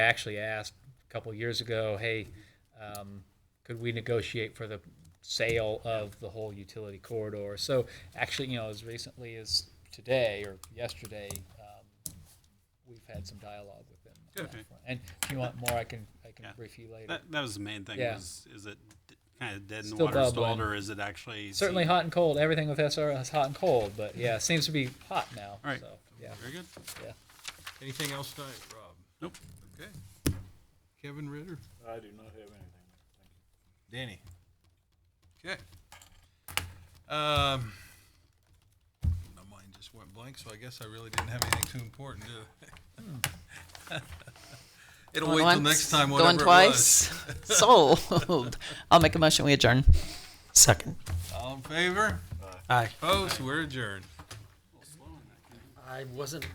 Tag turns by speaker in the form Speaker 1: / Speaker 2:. Speaker 1: I actually asked a couple years ago, hey, um, could we negotiate for the sale of the whole utility corridor? So actually, you know, as recently as today or yesterday, um, we've had some dialogue with them. on that
Speaker 2: Okay.
Speaker 1: front. And if you want more, I can, I can
Speaker 2: Yeah.
Speaker 1: brief you later.
Speaker 2: That, that was the main thing.
Speaker 1: Yeah.
Speaker 2: Was is it kind of dead in the
Speaker 1: Still
Speaker 2: water stalled,
Speaker 1: bubbling.
Speaker 2: or is it actually
Speaker 1: Certainly hot and cold, everything with SRO is hot and cold, but yeah, it seems to be hot now,
Speaker 2: All right.
Speaker 1: so, yeah,
Speaker 2: Very good.
Speaker 1: yeah.
Speaker 3: Anything else tonight, Rob?
Speaker 2: Nope.
Speaker 3: Okay. Kevin Ritter?
Speaker 4: I do not have anything.
Speaker 3: Danny. Okay. Um, my mind just went blank, so I guess I really didn't have anything too important, did I? It'll wait
Speaker 5: Going
Speaker 3: till
Speaker 5: once,
Speaker 3: next time,
Speaker 5: Going
Speaker 3: whatever it was.
Speaker 5: twice. Sold. I'll make a motion. We adjourn.
Speaker 6: Second.
Speaker 3: All in favor?
Speaker 6: Aye.
Speaker 3: Opposed? We're adjourned.
Speaker 6: I wasn't